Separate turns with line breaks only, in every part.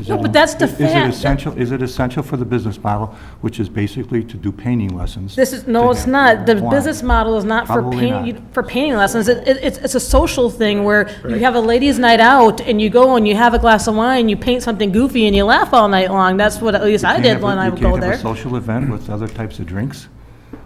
Is
No,
it-
but that's the
is it
fact.
essential, is it essential for the business model, which is basically to do painting lessons?
This is, no,
to
it's
have-
not. The
Why?
business model is not for
Probably not.
painting, for painting lessons. It, it- it's, it's a social thing where you have a ladies' night out and you go and you have a glass of wine, you paint something goofy and you laugh all night long. That's what, at least I
Can't
did
have a-
when I would go
You can't
there.
have a social event with other types of drinks,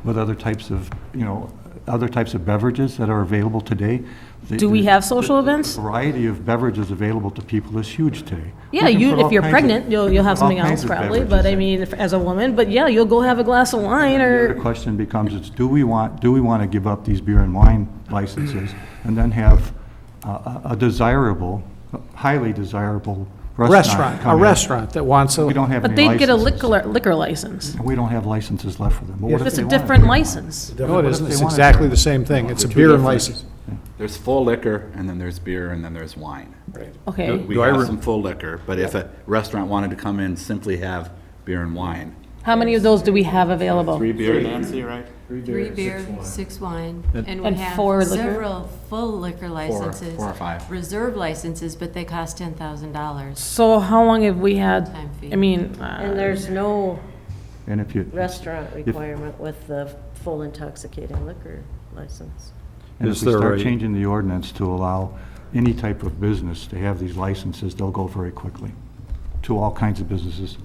with other types of, you know, other types of beverages that are available today. The-
Do we have social events?
The variety of beverages available to people is huge today. We
Yeah,
can put
you,
all
if you're
kinds of-
pregnant, you'll,
we
you'll
can
have
put all
something
kinds
else
of
probably,
beverages
but I
in.
mean, if- as a woman, but yeah, you'll go have a glass of wine
The
or,
question becomes, is do we want, do we want to give up these beer and wine licenses and then have a- a a desirable, highly desirable restaurant
Restaurant,
come
a
in?
restaurant that wants
We
a,
don't have
but
any
they'd get a
licenses.
liquor, liquor license.
And we don't have licenses left for them. But what if
It's
they
a
want it?
different license.
no, it
if
isn't,
they
it's
wanted to?
exactly the same thing, it's a beer and license.
There's full liquor, and then there's beer, and then there's wine.
Okay.
We
Do I
have
re-
some full liquor, but if a restaurant wanted to come in, simply have beer and wine.
How many of those do we have available?
Three beer.
Three beer, six wine, and we
And four
have
liquor?
several full liquor licenses.
four or five.
Reserve licenses, but they cost ten thousand dollars.
So how long have we had,
Time fee.
I mean, uh,
And there's no
And if you,
restaurant requirement with the full intoxicating liquor license.
and if
Is
we
there
start
a-
changing the ordinance to allow any type of business to have these licenses, they'll go very quickly to all kinds of businesses.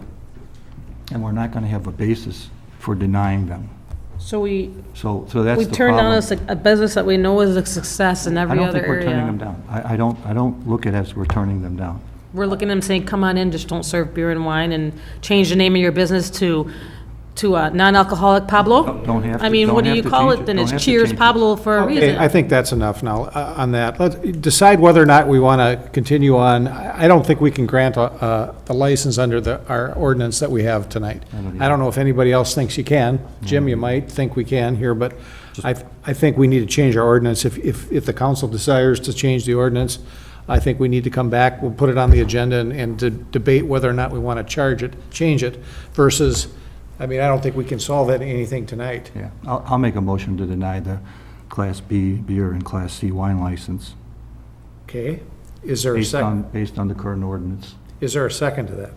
And we're not going to have a basis for denying them.
so we,
So, so that's
we
the problem.
turned down a suc- a business that we know is a success in
I
every
don't
other
think we're turning them
area.
down. I, I don't, I don't look at it as we're turning them down.
We're looking at them saying, come on in, just don't serve beer and wine, and change the name of your business to, to uh, non-alcoholic Pablo?
Don't- don't have
I
to-
mean,
don't
what do
have
you
to
call
change
it
it.
then?
Don't
It's
have to
Cheers
change it.
Pablo for a
Okay, I
reason.
think that's enough now uh, on that. Let's decide whether or not we want to continue on. I I don't think we can grant a- a- the license under the, our ordinance that we have tonight. I don't know if anybody else thinks you can. Jim, you might think we can here, but I, I think we need to change our ordinance. If, if, if the council desires to change the ordinance, I think we need to come back, we'll put it on the agenda and, and to debate whether or not we want to charge it, change it versus, I mean, I don't think we can solve that, anything tonight.
Yeah, I'll, I'll make a motion to deny the Class B beer and Class C wine license
Okay? Is there a
based
second?
on, based on the current ordinance.
Is there a second to that?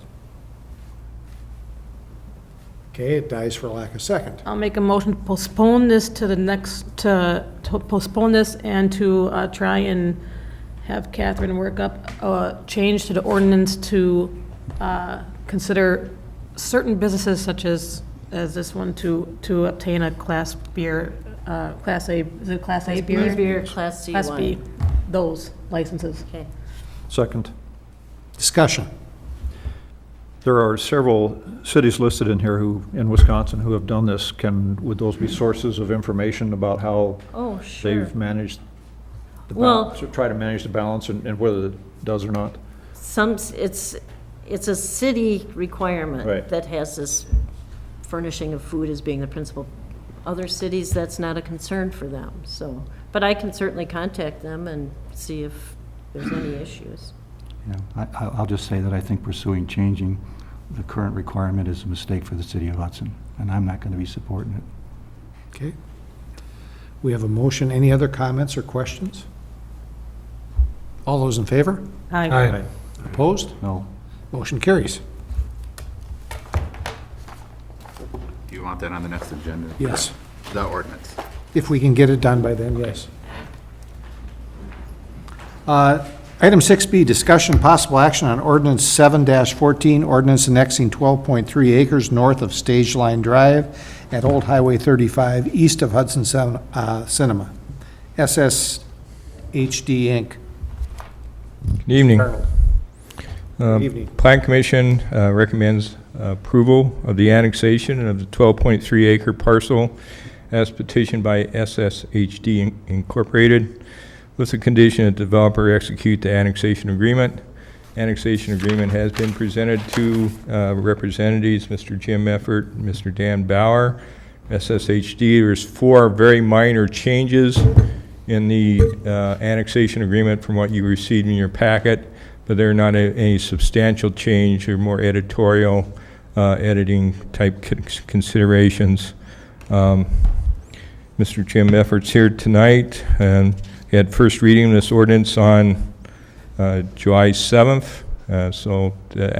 Okay, it dies for lack of second.
I'll make a motion to postpone this to the next, to to postpone this and to uh, try and have Catherine work up a change to the ordinance to uh, consider certain businesses such as, as this one to, to obtain a class beer, uh, class A, is it class A beer?
Beer, Class C
Class B,
wine.
those licenses.
Okay.
Second.
Discussion.
There are several cities listed in here who, in Wisconsin, who have done this. Can, would those be sources of information about how
Oh, sure.
they've managed the
Well-
balance, or try to manage the balance and and whether it does or not?
Some, s- it's, it's a city requirement.
Right.
That has this furnishing of food as being the principal. Other cities, that's not a concern for them, so. But I can certainly contact them and see if there's any issues.
You know, I, I- I'll just say that I think pursuing changing the current requirement is a mistake for the city of Hudson, and I'm not going to be supporting it.
Okay. We have a motion. Any other comments or questions? All those in favor?
Aye.
Opposed?
No,
Motion carries.
Do you want that on the next agenda?
Yes.
The ordinance.
If we can get it done by then, yes. Uh, Item 6B, discussion possible action on ordinance 7-14, ordinance annexing 12.3 acres north of Stage Line Drive at Old Highway 35, east of Hudson Cin- uh, Cinema. SSHD Inc.
Good evening.
Arnold. Good evening.
Plan Commission uh, recommends approval of the annexation of the 12.3 acre parcel as petitioned by SSHD Inc- Incorporated with the condition that developer execute the annexation agreement. Annexation agreement has been presented to uh, representatives, Mr. Jim Effort, Mr. Dan Bauer, SSHD. There's four very minor changes in the uh, annexation agreement from what you received in your packet, but they're not a- any substantial change or more editorial uh, editing type con- considerations. Um, Mr. Jim Effort's here tonight, and he had first reading of this ordinance on uh, July 7th, uh, so the